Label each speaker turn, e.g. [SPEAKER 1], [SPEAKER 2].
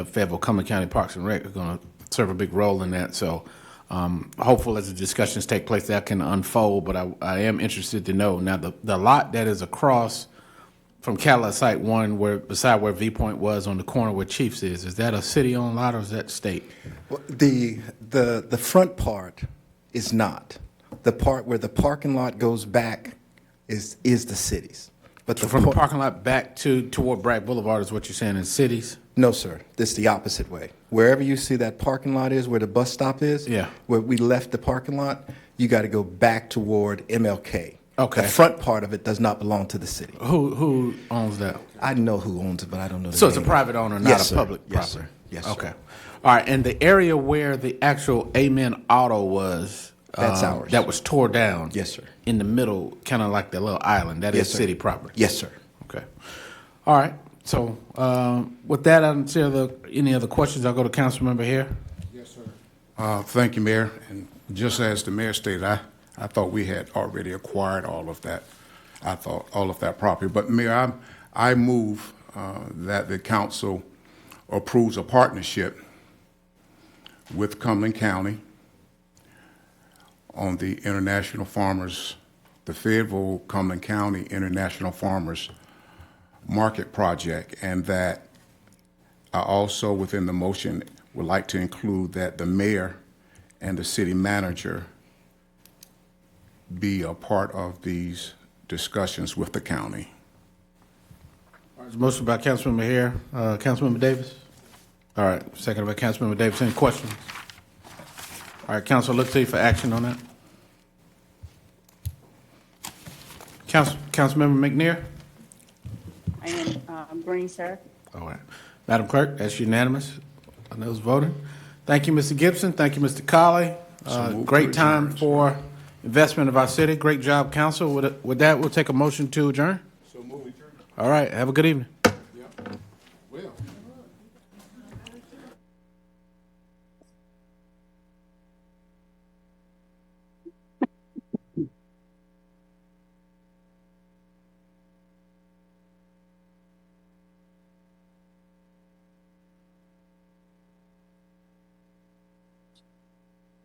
[SPEAKER 1] Fayetteville, Cumberland County Parks and Rec are going to serve a big role in that. So um, hopeful as the discussions take place, that can unfold. But I, I am interested to know now the, the lot that is across from Cala Site One, where beside where Viewpoint was on the corner where Chiefs is, is that a city-owned lot or is that state?
[SPEAKER 2] Well, The, the, the front part is not. The part where the parking lot goes back is, is the city's. But the,
[SPEAKER 1] From the
[SPEAKER 2] par-
[SPEAKER 1] parking lot back to toward Bragg Boulevard is what you're saying in cities?
[SPEAKER 2] no, sir, it's the opposite way. Wherever you see that parking lot is, where the bus stop is.
[SPEAKER 1] Yeah.
[SPEAKER 2] Where we left the parking lot, you got to go back toward MLK.
[SPEAKER 1] Okay.
[SPEAKER 2] The front part of it does not belong to the city.
[SPEAKER 1] Who who owns that?
[SPEAKER 2] I know who owns it, but I don't know the
[SPEAKER 1] So it's a
[SPEAKER 2] name.
[SPEAKER 1] private owner, not
[SPEAKER 2] Yes,
[SPEAKER 1] a
[SPEAKER 2] sir.
[SPEAKER 1] public
[SPEAKER 2] Yes, sir.
[SPEAKER 1] property.
[SPEAKER 2] Yes, sir.
[SPEAKER 1] Okay. All right. And the area where the actual Amen Auto was.
[SPEAKER 2] That's
[SPEAKER 1] um,
[SPEAKER 2] ours.
[SPEAKER 1] That was tore down.
[SPEAKER 2] Yes, sir.
[SPEAKER 1] In the middle, kind of like that little island. That is
[SPEAKER 2] Yes, sir.
[SPEAKER 1] city property.
[SPEAKER 2] Yes, sir.
[SPEAKER 1] Okay. All right. So um, with that, I don't see other, any other questions. I'll go to council member here.
[SPEAKER 3] Uh, Thank you, Mayor. And just as the mayor stated, I, I thought we had already acquired all of that, I thought, all of that property. But Mayor, I, I move uh, that the council approves a partnership with Cumberland County on the International Farmers, the Fayetteville Cumberland County International Farmers Market Project, and that I also, within the motion, would like to include that the mayor and the city manager be a part of these discussions with the county.
[SPEAKER 1] All right, it's Motion by Councilmember Hare, uh, Councilmember Davis. All right, second by Councilmember Davis. Any questions? All right, council, look to you for action on that. Council, Councilmember McNair?
[SPEAKER 4] I am um, Green, sir.
[SPEAKER 1] All right. Madam Clerk, that's unanimous on those voting. Thank you, Mr. Gibson. Thank you, Mr. Colley. Uh,
[SPEAKER 3] moved to
[SPEAKER 1] Great time
[SPEAKER 3] adjourn, sir.
[SPEAKER 1] for investment of our city. Great job, council. With with that, we'll take a motion to adjourn. So move adjourn. All right, have a good evening.